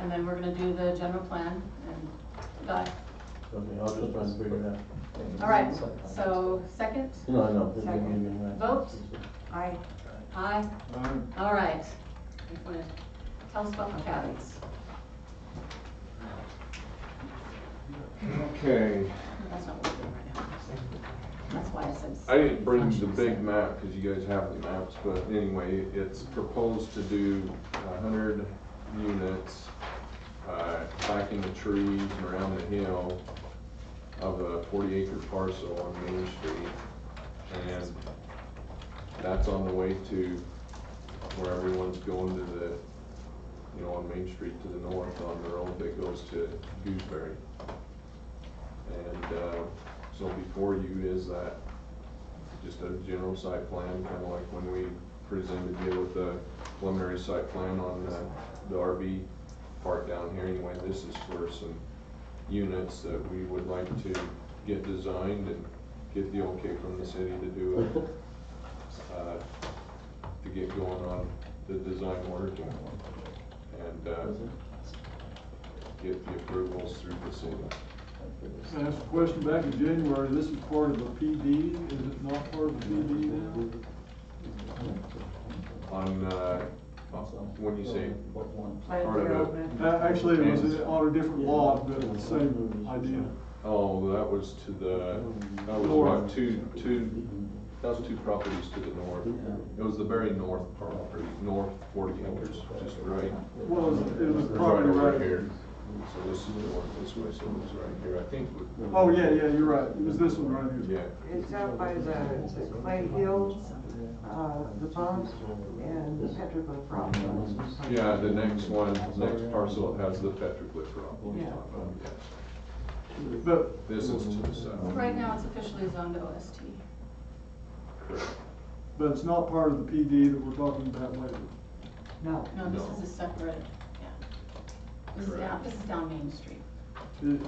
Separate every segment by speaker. Speaker 1: and then we're gonna do the general plan and, got it.
Speaker 2: Okay, I'll just try and figure it out.
Speaker 1: all right, so second,
Speaker 2: No, I know. it's gonna
Speaker 1: Second.
Speaker 2: be me, right?
Speaker 1: Vote. aye, aye,
Speaker 3: Aye.
Speaker 1: all right. You wanna Tell us about McCallie's.
Speaker 3: Okay,
Speaker 1: That's not what we're doing right now. That's why I said.
Speaker 3: I didn't bring the big map because you guys have the maps, but anyway, it's proposed to do a hundred units, uh, backing the trees and around the hill of a forty acre parcel on Main Street. And that's on the way to where everyone's going to the, you know, on Main Street to the north on the road that goes to Gooseberry. And, uh, so before you is that just a general site plan, kinda like when we presented you with the preliminary site plan on the, the RV part down here. Anyway, this is for some units that we would like to get designed and get the okay from the city to do, uh, to get going on the design work and, and, uh, get the approvals through the city.
Speaker 4: Can I ask a question back in January, this is part of a PD, is it not part of a PD now?
Speaker 3: On, uh, when you say part of it,
Speaker 4: Uh, Actually, it was on a different lot, but the same idea.
Speaker 3: oh, that was to the, that was what, two, two, that was two properties to the north. It was the very north property, north forty acres, just right,
Speaker 4: Well, it was, it was
Speaker 3: right
Speaker 4: probably
Speaker 3: over
Speaker 4: right.
Speaker 3: here. So this is the one this way, so it was right here, I think, we-
Speaker 4: Oh, yeah, yeah, you're right, it was this one right here.
Speaker 3: yeah.
Speaker 5: It's out by the the Clay Hill, uh, the pumps and the petrichor problem.
Speaker 3: Yeah, the next one, next parcel has the petroglyph on it.
Speaker 5: Yeah.
Speaker 3: Yeah.
Speaker 4: But,
Speaker 3: This is to the south.
Speaker 1: Right now, it's officially zoned OST.
Speaker 4: but it's not part of the PD that we're talking about later.
Speaker 5: No,
Speaker 1: No, this
Speaker 3: No.
Speaker 1: is a separate, yeah. This is down,
Speaker 3: Correct.
Speaker 1: this is down Main Street.
Speaker 4: It-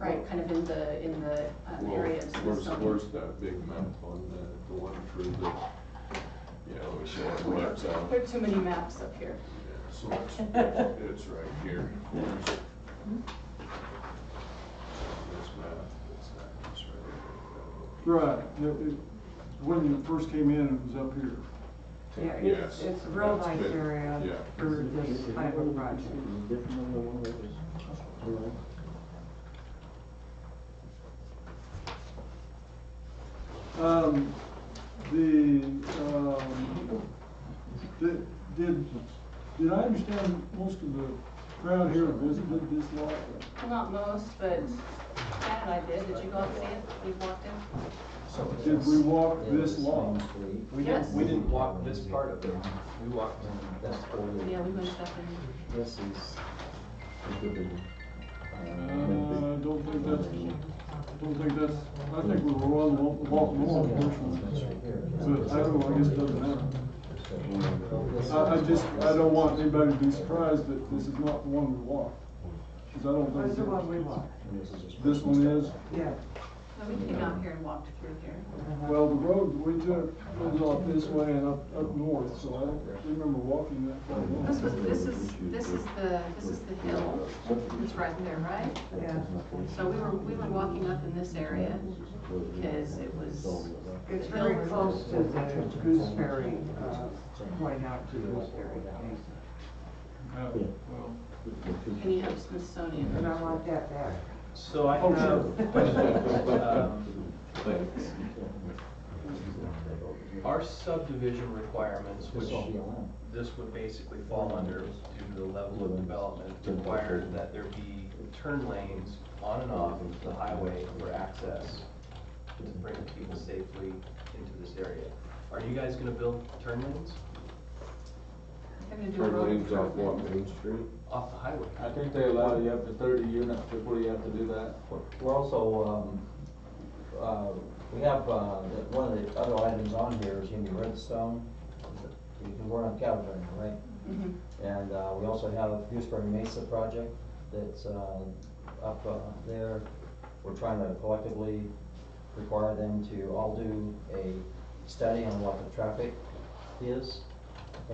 Speaker 1: Right, kind of in the, in the uh,
Speaker 3: Well,
Speaker 1: area of the
Speaker 3: Where's, where's
Speaker 1: zone.
Speaker 3: that big map on the, the one for the, yeah, let me show it, maps out.
Speaker 1: There are too many maps up here.
Speaker 3: Yeah, So it's, it's right here. There's it. This map, it's that, it's right
Speaker 4: Right, it- it- when you first came in, it was up here.
Speaker 5: yeah,
Speaker 3: here.
Speaker 5: it's,
Speaker 3: Yes,
Speaker 5: it's a real
Speaker 3: that's
Speaker 5: nice
Speaker 3: big.
Speaker 5: area
Speaker 3: Yeah,
Speaker 5: for this type of project.
Speaker 4: Um, the, um, did, did, did I understand most of the crowd here visited this lot?
Speaker 1: Well, not most, but Chad and I did. Did you go out and see it? We walked in?
Speaker 4: Did we walk this long?
Speaker 6: We
Speaker 1: Yes.
Speaker 6: didn't, we didn't walk this part of it, we walked,
Speaker 7: That's
Speaker 1: Yeah,
Speaker 7: forty,
Speaker 1: we went up and,
Speaker 7: this is.
Speaker 4: Uh, don't think that's, don't think that's, I think we were on, the- walking along portion. But I don't know, I guess it doesn't matter. I, I just, I don't want anybody to be surprised that this is not the one we walked. Cause I don't think.
Speaker 5: Where's the one we want?
Speaker 4: This one is,
Speaker 5: Yeah.
Speaker 1: no, we came out here and walked through here.
Speaker 4: well, the road we took goes off this way and up, up north, so I don't remember walking that far. along.
Speaker 1: This was, this is, this is the, this is the hill. It's right there, right?
Speaker 5: Yeah.
Speaker 1: So we were, we were walking up in this area because it was,
Speaker 5: It's very close to the Gooseberry, uh, point out to Gooseberry.
Speaker 4: Yeah, well.
Speaker 1: and you have Smithsonian.
Speaker 5: And I want that back.
Speaker 6: so I
Speaker 4: Oh,
Speaker 6: have,
Speaker 4: sure.
Speaker 6: um, our subdivision requirements, which this would basically fall under due to the level of development, required that there be turn lanes on and off the highway for access to bring people safely into this area. Are you guys gonna build turn lanes
Speaker 1: They're gonna do a
Speaker 3: Turn
Speaker 1: road
Speaker 3: lanes off what,
Speaker 1: improvement.
Speaker 3: Main Street?
Speaker 6: off the highway?
Speaker 8: I think they allow you up to thirty units before you have to do that.
Speaker 7: We're also, um, uh, we have, uh, the- one of the other items on here is gonna be redstone. Because we're on California, right?
Speaker 1: Mhm.
Speaker 7: And, uh, we also have Gooseberry Mesa project that's, uh, up, uh, there. We're trying to collectively require them to all do a study on what the traffic is